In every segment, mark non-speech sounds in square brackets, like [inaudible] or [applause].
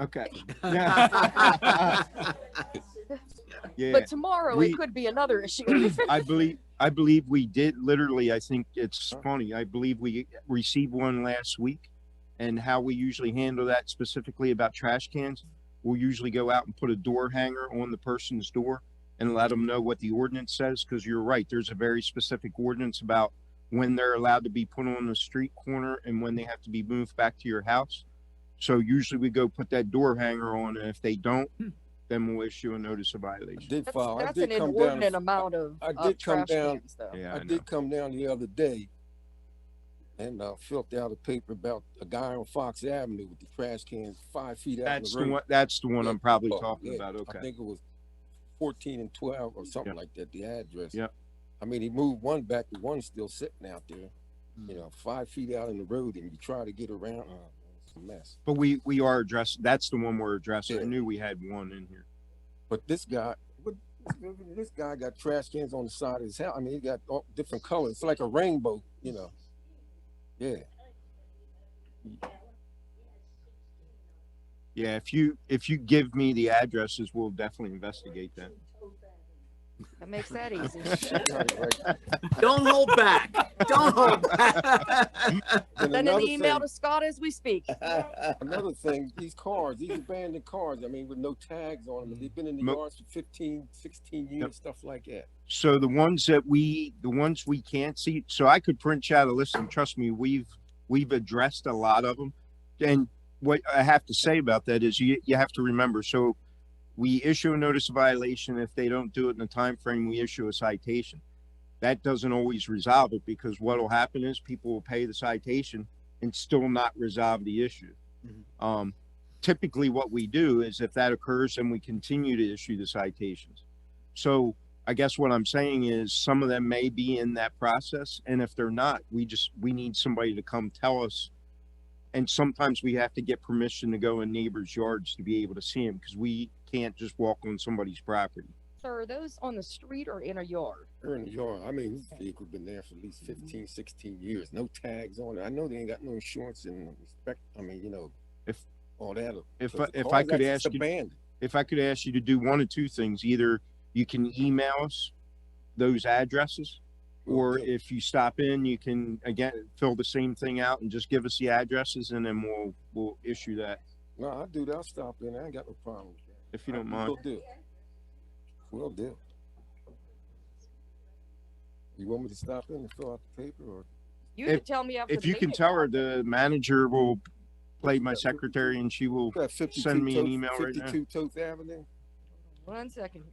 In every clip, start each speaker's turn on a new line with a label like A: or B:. A: Okay. Yeah. [laughs] Yeah,
B: But tomorrow
A: we-
B: it could
C: [clears throat]
B: be another issue.
A: I believe, I believe we did literally, I think it's funny, I believe we received one last week. And how we usually handle that specifically about trash cans, we'll usually go out and put a door hanger on the person's door and let them know what the ordinance says, because you're right, there's a very specific ordinance about when they're allowed to be put on the street corner and when they have to be moved back to your house. So usually we go put that door hanger on, and if they don't, then we'll issue a notice of
C: I
A: violation.
C: did
B: That's
C: file, I
B: that's an
C: did come down,
B: inordinate
C: and-
B: amount of,
C: I did
B: of
C: come
B: trash
C: down-
B: cans though.
A: Yeah,
C: I
A: I know.
C: did come down the other day and uh, filled out a paper about a guy on Fox Avenue with the trash cans five feet out in
A: That's
C: the
A: the
C: road.
A: one, that's the one I'm probably
C: Oh,
A: talking
C: yeah.
A: about,
C: I
A: okay.
C: think it was fourteen and twelve or something
A: Yep.
C: like that, the address.
A: Yep.
C: I mean, he moved one back, the one's still sitting out there,
A: Mm.
C: you know, five feet out in the road and you try to get around, uh, it's a mess.
A: But we, we are addressed, that's the one we're addressing. I
C: Yeah.
A: knew we had one in here.
C: But this guy, but this guy got trash cans on the side of his house. I mean, he got all different colors. It's like a rainbow, you
A: [laughs]
C: know. Yeah.
A: Yeah, if you, if you give me the addresses, we'll definitely investigate that.
B: That
C: [laughs]
B: makes that easy. [laughs]
C: Right, right.
D: Don't hold back. Don't hold back.
B: [laughs]
C: And
B: Send an
C: another
B: email
C: thing-
B: to Scott as
C: [laughs]
B: we speak.
C: Another thing, these cars, these abandoned cars, I mean, with no tags on them, they've been in the
A: Mm-hmm. Mo-
C: yards for 15, 16 years, stuff like that.
A: So the ones that we, the ones we can't see, so I could print you out a list and trust me, we've, we've addressed a lot of them. And what I have to say about that is you, you have to remember, so we issue a notice of violation. If they don't do it in the time frame, we issue a citation. That doesn't always resolve it because what'll happen is people will pay the citation and still not resolve the issue. Um, typically what we do is if that occurs, then we continue to issue the citations. So I guess what I'm saying is some of them may be in that process. And if they're not, we just, we need somebody to come tell us and sometimes we have to get permission to go in neighbors' yards to be able to see them because we can't just walk on somebody's property.
B: So are those on the street or in a yard?
C: They're in the yard. I mean, this vehicle's been there for at least
A: Mm-hmm.
C: 15, 16 years, no tags on it. I know they ain't got no insurance and respect, I mean, you know,
A: If-
C: all that.
A: If,
C: Because the
A: if I
C: car's
A: could
C: actually
A: ask you,
C: Abandoned.
A: if I could ask you to do one of two things, either you can email us those addresses,
C: We'll
A: or
C: do.
A: if you stop in, you can again, fill the same thing out and just give us the addresses and then we'll, we'll issue that
C: No, I do that. I'll stop in. I ain't got no problem with that.
A: if you don't
C: We'll
A: mind.
C: do. We'll do. You want me to stop in and fill out the paper or?
B: You
A: If-
B: can tell me after the
A: If you can
B: meeting.
A: tell her, the manager will play my secretary and she will,
C: You got 52
A: Send me an
C: Toth-
A: email right now.
C: Fifty-two Toth Avenue?
B: One second.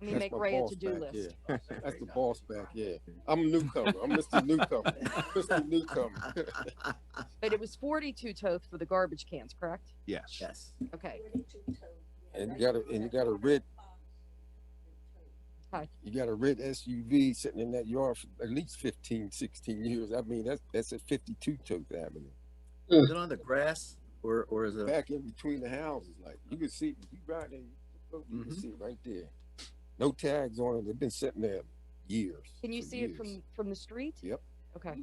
B: Let me
C: That's
B: make
C: my
B: Ray a
C: boss
B: to-do
C: back,
B: list.
C: yeah. That's the boss back, yeah. I'm a newcomer. I'm Mr. Newcomer. Mr. Newcomer.
B: But it was forty-two totes for the garbage cans, correct?
A: yes.
D: Yes.
B: Okay,
C: And you got a, and you got a red.
B: Hi.
C: You got a red SUV sitting in that yard for at least 15, 16 years. I mean, that's, that's at fifty-two Toth Avenue.
D: Is it on the grass or, or is it?
C: back in between the houses. Like you can see, you right there, you look, you
D: Mhm.
C: can see it right there. No tags on it. They've been sitting there years.
B: can you
C: for
B: see it
C: years.
B: from, from the street?
C: Yep.
B: Okay,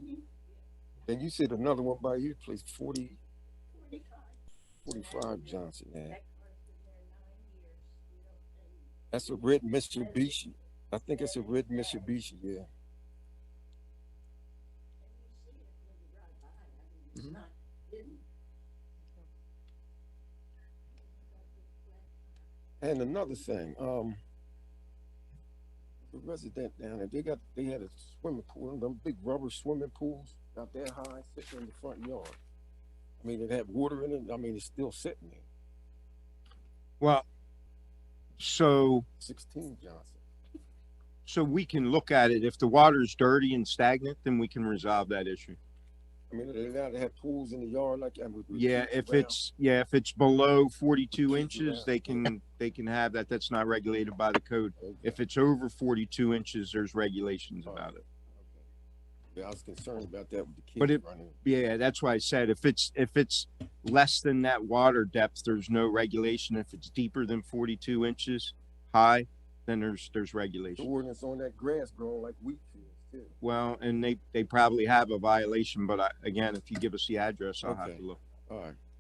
C: Then you said another one by your place, 40, 45 Johnson. Yeah. That's a red Mitsubishi. I think it's a red Mitsubishi. Yeah. And another thing, um, the resident down there, they got, they had a swimming pool, one of them big rubber swimming pools out there high, sitting in the front yard. I mean, it had water in it. I mean, it's still sitting there.
A: Well, so
C: Sixteen Johnson.
A: So we can look at it. If the water's dirty and stagnant, then we can resolve that issue.
C: I mean, they're allowed to have pools in the yard like that. with- with
A: Yeah,
C: kids
A: if
C: around.
A: it's, yeah, if it's below forty-two
C: Kids
A: inches,
C: around.
A: they can, they can have that. That's not regulated by the code.
C: Okay,
A: If it's over forty-two inches, there's regulations about it.
C: okay. Yeah, I was concerned about that with the kids.
A: But it-
C: running.
A: Yeah, that's why I said if it's, if it's less than that water depth, there's no regulation. If it's deeper than forty-two inches high, then there's, there's
C: The
A: regulation.
C: ordinance on that grass growing like wheat fields too.
A: Well, and they, they probably have a violation, but I, again, if you give us the address, I'll have
C: Okay.
A: to look.
C: All right.